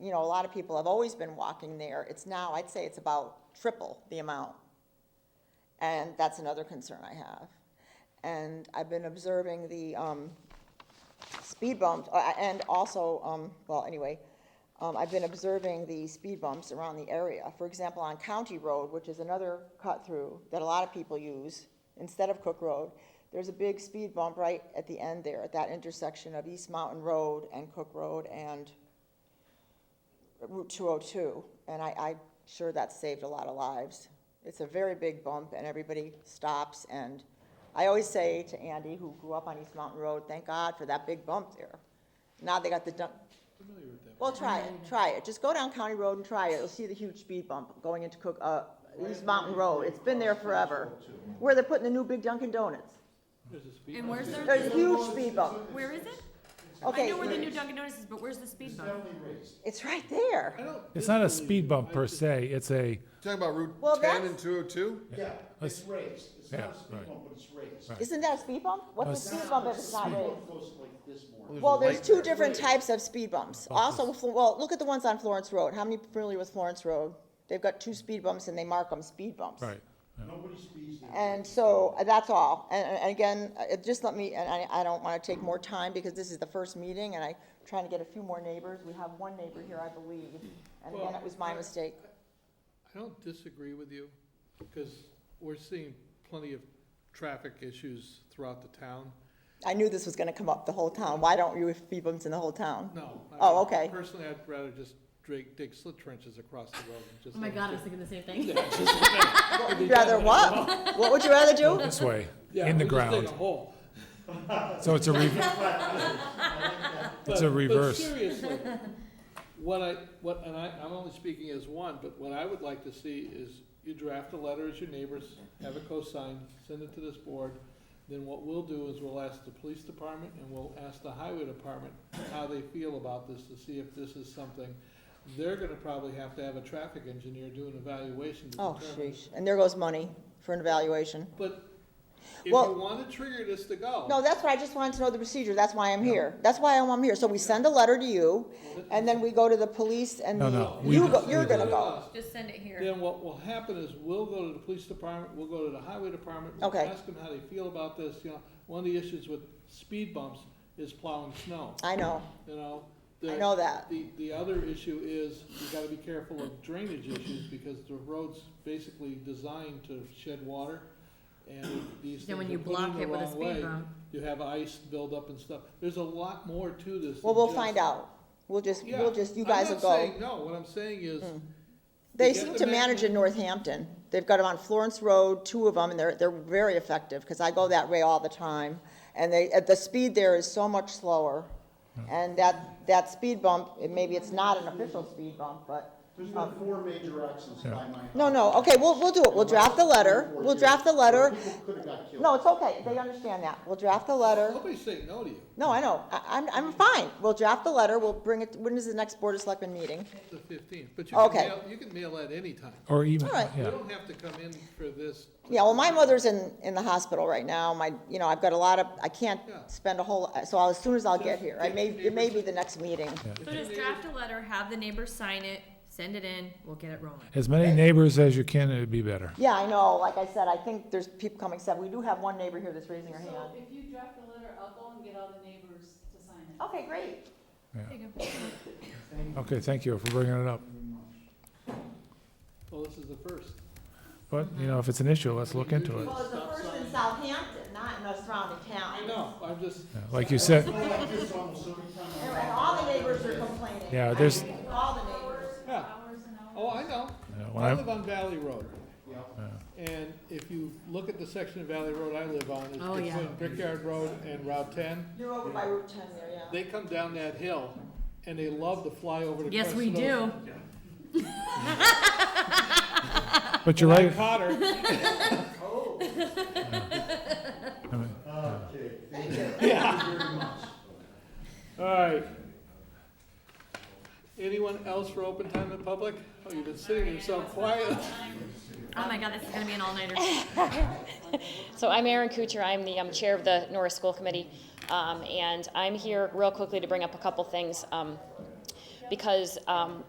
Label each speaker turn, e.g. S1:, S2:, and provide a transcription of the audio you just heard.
S1: you know, a lot of people have always been walking there. It's now, I'd say it's about triple the amount. And that's another concern I have. And I've been observing the, um, speed bumps, uh, and also, um, well, anyway, um, I've been observing the speed bumps around the area. For example, on County Road, which is another cut-through that a lot of people use, instead of Cook Road, there's a big speed bump right at the end there, at that intersection of East Mountain Road and Cook Road and Route 202. And I, I'm sure that saved a lot of lives. It's a very big bump, and everybody stops, and I always say to Andy, who grew up on East Mountain Road, thank God for that big bump there. Now they got the dump,
S2: Familiar with that.
S1: well, try it, try it. Just go down County Road and try it. You'll see the huge speed bump going into Cook, uh, East Mountain Road. It's been there forever. Where they're putting the new big Dunkin' Donuts.
S2: There's a speed.
S3: And where's their,
S1: There's a huge speed bump.
S3: where is it? I know where the
S1: Okay,
S3: new Dunkin' Donuts is, but where's the speed bump?
S1: it's right there.
S2: I don't
S4: It's not a
S2: disbelieve
S4: speed
S2: it.
S4: bump
S2: I
S4: per
S2: just-
S4: se, it's a,
S5: Talking about
S1: Well,
S5: Route 10
S1: that's-
S5: and 202?
S6: Yeah,
S4: Let's-
S6: it's raised, it's
S4: yeah,
S6: not a speed
S4: right.
S6: bump, but it's raised.
S1: Isn't that a speed bump? What's a
S4: That's
S1: speed bump if it's not
S6: Speed
S1: raised?
S6: bump goes like this more.
S1: Well, there's
S5: light
S1: two
S5: there.
S1: different types of speed bumps. Also, Flo- well, look at the ones on Florence Road. How many familiar with Florence Road? They've got two speed bumps and they mark them speed bumps.
S4: right.
S6: Nobody speeds there.
S1: And so, uh, that's all. And, and- and again, uh, it just let me, and I, I don't want to take more time because this is the first meeting and I'm trying to get a few more neighbors. We have one neighbor here, I believe. And again, it was my mistake.
S2: I don't disagree with you, because we're seeing plenty of traffic issues throughout the town.
S1: I knew this was going to come up, the whole town. Why don't you have speed bumps in the whole town?
S2: No. I-
S1: Oh, okay.
S2: Personally, I'd rather just dig, dig slit trenches across the road and just.
S3: Oh my
S2: let it
S3: god, I
S2: sit.
S3: was thinking the same thing.
S1: You'd rather what? What would you rather do?
S4: This way,
S2: Yeah,
S4: in the
S2: we just dig
S4: ground.
S2: a hole.
S4: So it's a re- it's
S2: But-
S4: a reverse.
S2: But seriously, what I, what, and I, I'm only speaking as one, but what I would like to see is you draft a letter as your neighbors, have it co-signed, send it to this board. Then what we'll do is we'll ask the police department and we'll ask the highway department how they feel about this to see if this is something. They're gonna probably have to have a traffic engineer do an evaluation to
S1: Oh,
S2: determine.
S1: sheesh. And there goes money for an evaluation.
S2: But if you
S1: Well-
S2: wanna trigger this to go.
S1: No, that's what I just wanted to know the procedure. That's why I'm here. That's why I'm I'm here. So we send a letter to you, and then we go to the police and
S4: No,
S1: the,
S4: no, we
S1: you
S4: do-
S1: go, you're
S4: we do
S1: gonna
S4: that.
S2: uh,
S1: go.
S3: Just send it here.
S2: Then what will happen is we'll go to the police department, we'll go to the highway department. we'll
S1: Okay.
S2: Ask them how they feel about this, you know, one of the issues with speed bumps is plowing snow,
S1: I know.
S2: you know?
S1: I
S2: The-
S1: know that.
S2: The, the other issue is you gotta be careful of drainage issues because the road's basically designed to shed water. And if these
S3: Then
S2: things
S3: when
S2: are
S3: you
S2: put
S3: block
S2: in the
S3: it with a
S2: wrong
S3: speed
S2: way,
S3: bump.
S2: You have ice buildup and stuff. There's a lot more to this. than
S1: Well, we'll
S2: just-
S1: find out. We'll just,
S2: Yeah.
S1: we'll just, you guys will
S2: I'm not
S1: go. Hmm.
S2: saying no, what I'm saying is,
S1: They
S2: you get
S1: seem
S2: the
S1: to manage in
S2: mechanism-
S1: Northampton. They've got them on Florence Road, two of them, and they're, they're very effective, because I go that way all the time. And they, at the speed there is so much slower. And that, that speed bump, it- maybe it's not an official speed bump, but
S6: There's been four major accidents by my.
S1: Uh, No, no, okay, we'll, we'll do it, we'll draft the letter, we'll draft the letter.
S6: People could have got killed.
S1: No, it's okay, they understand that, we'll draft the letter.
S2: nobody's saying no to you.
S1: No, I know, I, I'm, I'm fine, we'll draft the letter, we'll bring it, when is the next Board of Selectmen meeting?
S2: The fifteenth, but you can
S1: Okay.
S2: mail, you can mail at any time.
S4: Or even,
S1: All right.
S2: You
S4: yeah,
S2: don't have to come in for this.
S1: Yeah, well, my mother's in, in the hospital right now, my, you know, I've got a lot of, I can't
S2: Yeah.
S1: spend a whole, so I'll- as soon as I'll get here, I may, it may be the next meeting.
S3: So just draft a letter, have the neighbors sign it, send it in, we'll get it rolling.
S4: as many neighbors as you can, it'd be better.
S1: Yeah, I know, like I said, I think there's people coming, said, we do have one neighbor here that's raising her hand.
S7: So if you draft a letter, I'll go and get all the neighbors to sign it.
S1: Okay, great.
S4: Okay, thank you for bringing it up.
S2: Well, oh, this is the first.
S4: But, you know, if it's an issue, let's look into it.
S1: Well, it's the first in Southampton, not in the surrounding towns.
S2: I know, I'm just,
S4: Yeah, Like you said,
S6: I like this almost every time I-
S1: And and all the neighbors are complaining.
S4: Yeah, there's-
S1: All the neighbors.
S2: yeah,
S7: Hours and hours.
S2: oh, I know.
S4: Yeah, when
S2: I
S4: I'm-
S2: live on Valley Road,
S6: Yeah.
S2: and if you look at the section of Valley Road I live on,
S3: Oh,
S2: it's
S3: yeah.
S2: between Brickyard Road and Route ten.
S1: You're over by Route 10 there, yeah.
S2: They come down that hill, and they love to fly over the.
S3: Yes, we do.
S4: but you're right,
S2: Caught her,
S4: I mean,
S6: Okay, thank you very much.
S2: all right. Anyone else for open time in public? Oh, you've been sitting here so quiet.
S3: Oh my god, this is gonna be an all-nighter.
S8: So I'm Erin Kuchar, I'm the um, chair of the Norris School Committee, um, and I'm here real quickly to bring up a couple things. Um, because um,